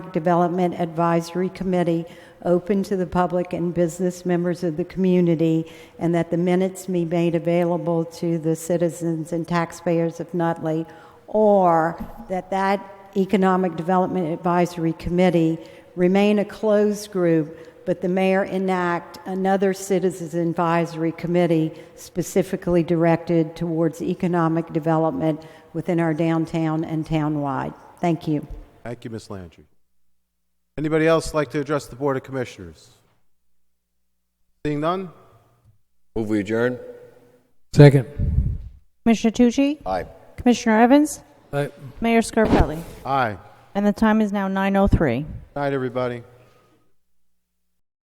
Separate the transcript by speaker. Speaker 1: Economic Development Advisory Committee open to the public and business members of the community, and that the minutes be made available to the citizens and taxpayers of Nutley, or that that Economic Development Advisory Committee remain a closed group, but the mayor enact another citizens advisory committee specifically directed towards economic development within our downtown and townwide. Thank you.
Speaker 2: Thank you, Ms. Landry. Anybody else like to address the Board of Commissioners? Seeing none?
Speaker 3: Move we adjourn?
Speaker 4: Second.
Speaker 5: Commissioner Tucci?
Speaker 3: Aye.
Speaker 5: Commissioner Evans?
Speaker 4: Aye.
Speaker 5: Mayor Scarpelli?
Speaker 2: Aye.
Speaker 5: And the time is now 9:03.
Speaker 2: Night, everybody.